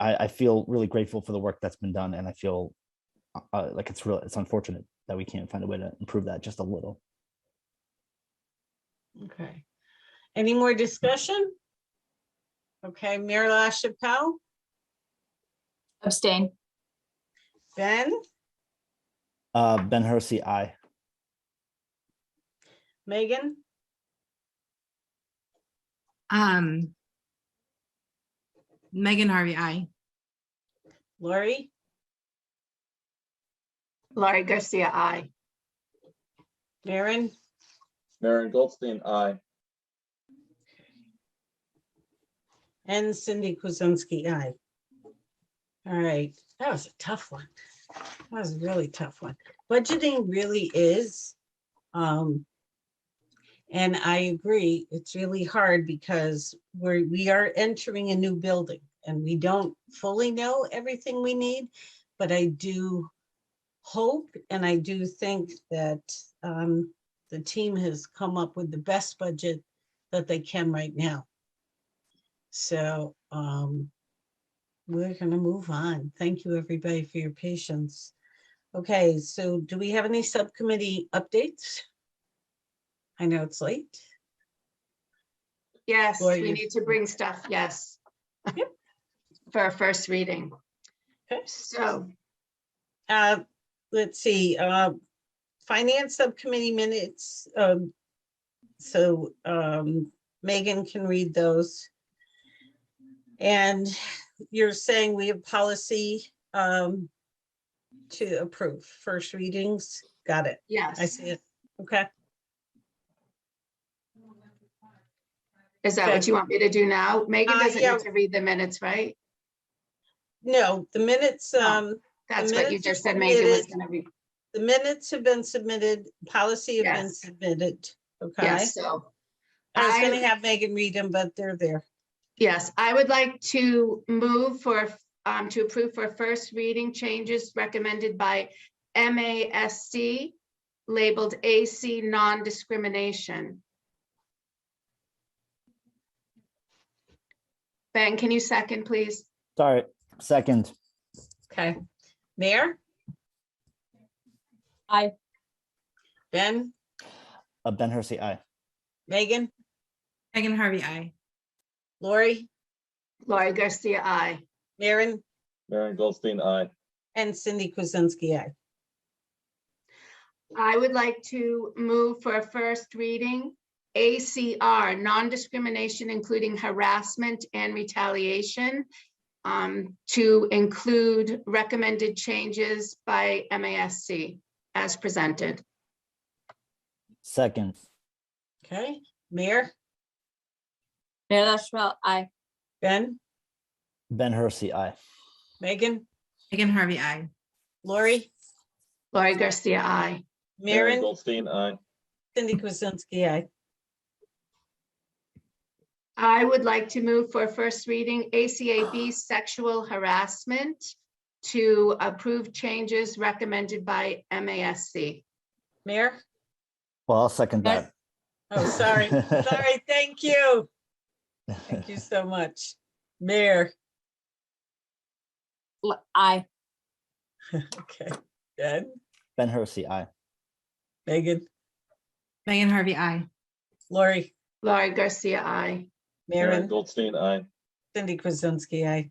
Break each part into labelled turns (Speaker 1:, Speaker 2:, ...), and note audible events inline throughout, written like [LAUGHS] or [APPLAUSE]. Speaker 1: I, I feel really grateful for the work that's been done, and I feel uh, like it's real. It's unfortunate that we can't find a way to improve that just a little.
Speaker 2: Okay. Any more discussion? Okay, Mayor LaChapelle,
Speaker 3: Abstain.
Speaker 2: Ben,
Speaker 1: Uh, ben Hersey, I.
Speaker 2: Megan,
Speaker 4: Um. Megan Harvey, I.
Speaker 2: Lori,
Speaker 3: Laurie Garcia, I.
Speaker 2: Maren,
Speaker 5: Maren Goldstein, aye.
Speaker 2: and Cindy Kuzensky, aye. All right, that was a tough one. That was a really tough one. Budgeting really is. Um. And I agree, it's really hard because we're, we are entering a new building and we don't fully know everything we need. But I do hope and I do think that um, the team has come up with the best budget that they can right now. So um, we're gonna move on. Thank you, everybody, for your patience. Okay, so do we have any subcommittee updates? I know it's late.
Speaker 3: Yes,
Speaker 2: Lori,
Speaker 3: we
Speaker 2: you-
Speaker 3: need to bring stuff, yes. [LAUGHS] For our first reading.
Speaker 2: Okay.
Speaker 3: So,
Speaker 2: Uh, let's see, uh, Finance Subcommittee minutes, um, so, um, Megan can read those. And you're saying we have policy, um, to approve first readings, got it, I
Speaker 3: yes,
Speaker 2: see it, okay,
Speaker 3: is that what
Speaker 2: Okay.
Speaker 3: you want me to do now? Megan
Speaker 2: Uh,
Speaker 3: doesn't
Speaker 2: yeah.
Speaker 3: need to read the minutes, right?
Speaker 2: no, the minutes,
Speaker 3: Oh.
Speaker 2: um,
Speaker 3: That's what you
Speaker 2: minutes are
Speaker 3: just said Megan was
Speaker 2: submitted.
Speaker 3: gonna read.
Speaker 2: the minutes have been submitted, policy have been
Speaker 3: Yes.
Speaker 2: submitted, okay?
Speaker 3: Yes, so,
Speaker 2: I was
Speaker 3: I-
Speaker 2: gonna have Megan read them, but they're there,
Speaker 3: yes, I would like to move for, um, to approve for first reading changes recommended by MASC labeled AC non-discrimination. Ben, can you second, please?
Speaker 1: Sorry, second.
Speaker 2: okay, Mayor?
Speaker 4: Aye.
Speaker 2: Ben?
Speaker 1: Uh, ben Hersey, I.
Speaker 2: Megan,
Speaker 4: Megan Harvey, I.
Speaker 2: Lori,
Speaker 3: Laurie Garcia, I.
Speaker 2: Maren,
Speaker 5: Maren Goldstein, aye.
Speaker 2: and Cindy Kuzensky, aye.
Speaker 3: I would like to move for a first reading, ACR, non-discrimination including harassment and retaliation, um, to include recommended changes by MASC as presented.
Speaker 1: Second.
Speaker 2: Okay, Mayor,
Speaker 6: Mayor LaChapelle, aye.
Speaker 2: Ben,
Speaker 1: Ben Hersey, I.
Speaker 2: Megan,
Speaker 4: Megan Harvey, I.
Speaker 2: Lori,
Speaker 3: Laurie Garcia, I.
Speaker 2: Maren,
Speaker 5: Goldstein, aye.
Speaker 2: Cindy Kuzensky, aye.
Speaker 3: I would like to move for a first reading ACAB sexual harassment to approve changes recommended by MASC.
Speaker 2: Mayor,
Speaker 1: Well, I'll second that.
Speaker 2: oh, sorry, sorry, thank you, thank you so much. Mayor,
Speaker 6: L- Aye.
Speaker 2: okay, Ben,
Speaker 1: [LAUGHS] Ben Hersey, I.
Speaker 2: Megan,
Speaker 4: Megan Harvey, I.
Speaker 2: Lori,
Speaker 3: Laurie Garcia, I.
Speaker 2: Maren,
Speaker 5: Goldstein, aye.
Speaker 2: Cindy Kuzensky, aye.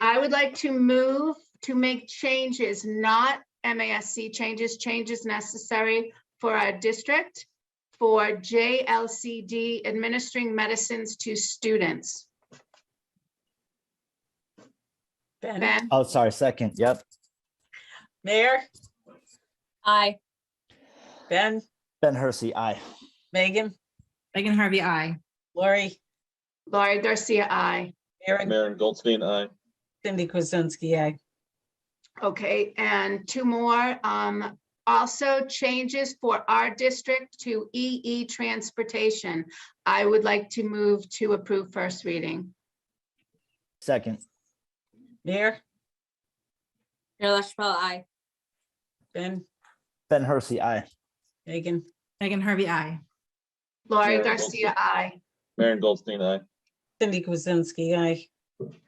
Speaker 3: I would like to move to make changes, not MASC changes, changes necessary for our district for JLCD administering medicines to students.
Speaker 2: Ben,
Speaker 3: Ben,
Speaker 1: Oh, sorry, second. Yep.
Speaker 2: Mayor,
Speaker 6: Aye.
Speaker 2: Ben,
Speaker 1: Ben Hersey, I.
Speaker 2: Megan,
Speaker 4: Megan Harvey, I.
Speaker 2: Lori,
Speaker 3: Laurie Garcia, I.
Speaker 2: Maren,
Speaker 5: Maren Goldstein, aye.
Speaker 2: Cindy Kuzensky, aye.
Speaker 3: Okay, and two more. Um, also changes for our district to EE transportation. I would like to move to approve first reading.
Speaker 1: Second.
Speaker 2: Mayor,
Speaker 6: Mayor LaChapelle, aye.
Speaker 2: Ben,
Speaker 1: Ben Hersey, I.
Speaker 2: Megan,
Speaker 4: Megan Harvey, I.
Speaker 3: Laurie
Speaker 5: Maren
Speaker 3: Garcia,
Speaker 5: Wilson.
Speaker 3: I.
Speaker 5: Maren Goldstein, aye.
Speaker 2: Cindy Kuzensky, aye.